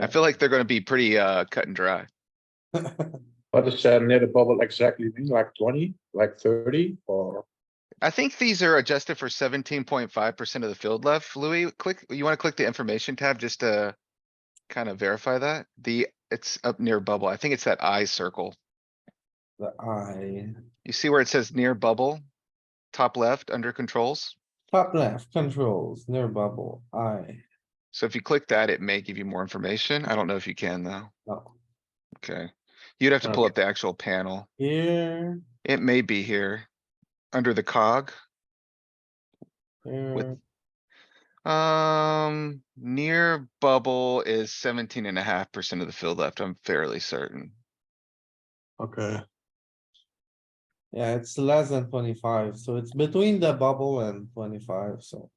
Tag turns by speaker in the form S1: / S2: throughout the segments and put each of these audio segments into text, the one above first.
S1: I feel like they're gonna be pretty, uh, cut and dry.
S2: What is uh, near the bubble exactly mean? Like twenty, like thirty, or?
S1: I think these are adjusted for seventeen point five percent of the field left. Louis, click, you wanna click the information tab just to kind of verify that? The, it's up near bubble. I think it's that I circle.
S3: The eye,
S1: You see where it says near bubble? Top left, under controls.
S3: top left, controls, near bubble, eye,
S1: So if you click that, it may give you more information. I don't know if you can though.
S3: no.
S1: Okay. You'd have to pull up the actual panel.
S3: Here,
S1: It may be here. Under the cog,
S3: here,
S1: um, near bubble is seventeen and a half percent of the field left. I'm fairly certain.
S2: Okay.
S3: yeah, it's less than twenty-five, so it's between the bubble and twenty-five, so.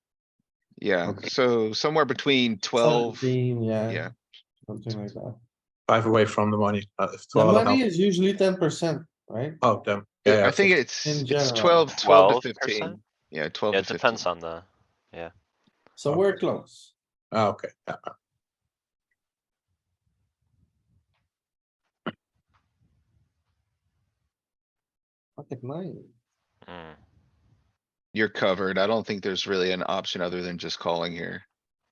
S1: Yeah,
S2: Okay.
S1: so somewhere between twelve,
S3: 17, Yeah,
S1: yeah,
S3: something like that.
S2: Five away from the money. Uh, if
S3: The
S2: 12 and a
S3: money
S2: half-
S3: is usually ten percent, right?
S2: Oh, damn. Yeah, yeah,
S1: I think it's,
S3: In
S1: it's
S3: general.
S1: twelve, twelve to
S4: 12%?
S1: fifteen. Yeah, twelve
S4: Yeah,
S1: to
S4: it
S1: fifteen.
S4: depends on the,
S3: So we're close.
S2: Ah, okay. Yeah.
S3: I think nine.
S4: mm,
S1: You're covered. I don't think there's really an option other than just calling here.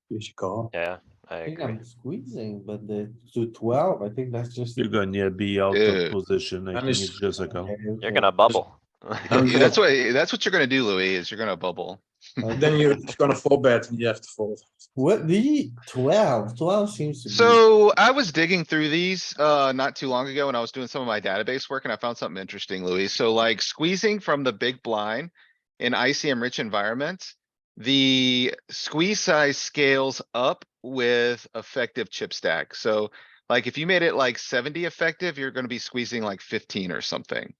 S2: You should call.
S4: yeah, I
S3: I think
S4: agree.
S3: I'm squeezing, but the to twelve, I think that's just.
S5: You're gonna be e out
S1: Yeah.
S5: of position, I
S2: And
S5: think
S2: it's-
S5: it's just a call.
S4: You're gonna bubble.
S3: Oh,
S1: Yeah,
S2: Okay.
S1: That's what, that's what you're gonna do, Louis, is you're gonna bubble.
S2: Then you're gonna fall bet and you have to fold.
S3: What the 12? 12 seems to be.
S1: So I was digging through these, uh, not too long ago when I was doing some of my database work and I found something interesting, Louis. So like squeezing from the big blind in ICM rich environments, the squeeze size scales up with effective chip stack. So like if you made it like seventy effective, you're gonna be squeezing like fifteen or something.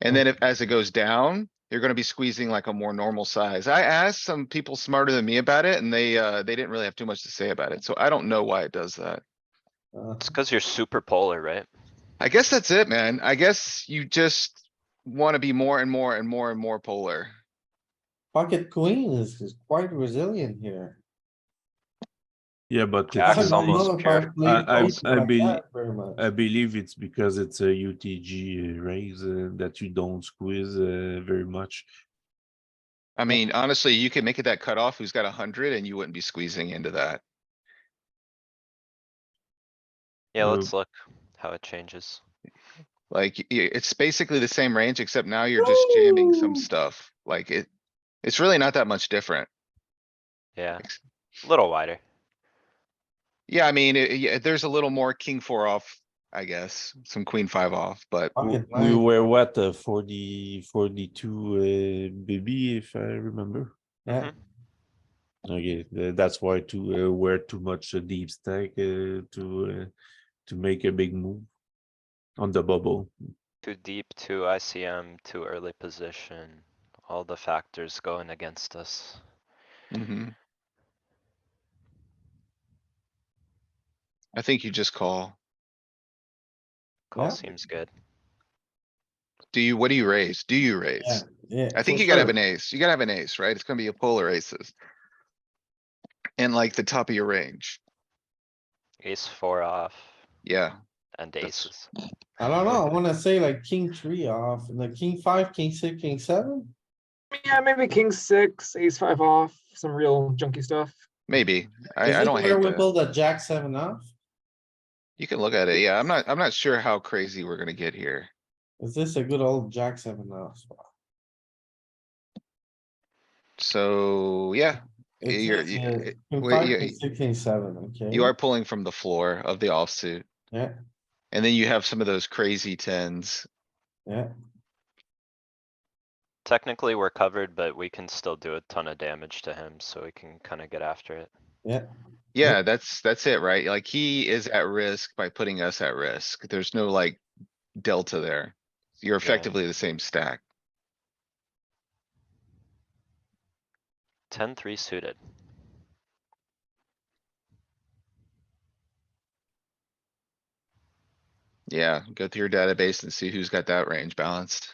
S1: And
S3: Oh.
S1: then if, as it goes down, you're gonna be squeezing like a more normal size. I asked some people smarter than me about it and they, uh, they didn't really have too much to say about it. So I don't know why it does that.
S3: Uh,
S4: It's cuz you're super polar, right?
S1: I guess that's it, man. I guess you just wanna be more and more and more and more polar.
S3: pocket queen is, is quite resilient here.
S5: Yeah, but
S4: Yeah, Jack
S3: I
S4: is
S5: it's,
S3: don't know
S4: almost
S3: if
S4: pure.
S3: I've played
S5: I- I-
S3: poker
S5: I
S3: like
S5: bel-
S3: that very much.
S5: I believe it's because it's a UTG raise uh, that you don't squeeze uh, very much.
S1: I mean, honestly, you can make it that cutoff who's got a hundred and you wouldn't be squeezing into that.
S4: Yeah,
S5: Mm.
S4: let's look how it changes.
S1: Like, y- y- it's basically the same range, except now you're just jamming some
S3: Woo!
S1: stuff. Like it, it's really not that much different.
S4: Yeah,
S1: Ex-
S4: a little wider.
S1: Yeah, I mean, it- yeah, there's a little more king four off, I guess, some queen five off, but
S3: Pocket
S5: We
S3: nine.
S5: were what, uh, 40, 42 uh, BB, if I remember? Mm-hmm.
S3: Yeah,
S5: Okay, tha- that's why to uh, wear too much uh, deep stack uh, to uh, to make a big move on the bubble.
S4: Too deep, too ICM, too early position. All the factors going against us.
S1: mhm. I think you just call.
S3: Yeah.
S4: Call seems good.
S1: Do you, what do you raise? Do you raise?
S3: yeah.
S1: I think
S3: for
S1: you gotta
S3: sure.
S1: have an ace. You gotta have an ace, right? It's gonna be a polar aces. And like the top of your range.
S4: Ace four off
S1: Yeah,
S4: and
S1: That's-
S4: aces.
S3: I don't know, I wanna say like king three off, the king five, king six, king seven?
S6: Yeah, maybe king six, ace five off, some real junky stuff.
S1: maybe. I,
S3: Is
S1: I
S3: it
S1: don't
S3: where
S1: hate
S3: we
S1: that.
S3: Pull the jack seven off?
S1: You can look at it. Yeah, I'm not, I'm not sure how crazy we're gonna get here.
S3: Is this a good old jack seven off? spot?
S1: So, yeah,
S3: It
S1: You're-
S3: says
S1: you-
S3: here,
S1: it-
S3: King
S1: well,
S3: five,
S1: you-
S3: king six, king seven, okay?
S1: you are pulling from the floor of the offsuit.
S3: Yeah.
S1: And then you have some of those crazy tens.
S3: Yeah,
S4: Technically, we're covered, but we can still do a ton of damage to him, so we can kinda get after it.
S3: Yeah.
S1: Yeah, that's, that's it, right? Like he is at risk by putting us at risk. There's no like delta there. You're effectively the same stack.
S4: Ten three suited.
S1: Yeah, go through your database and see who's got that range balanced.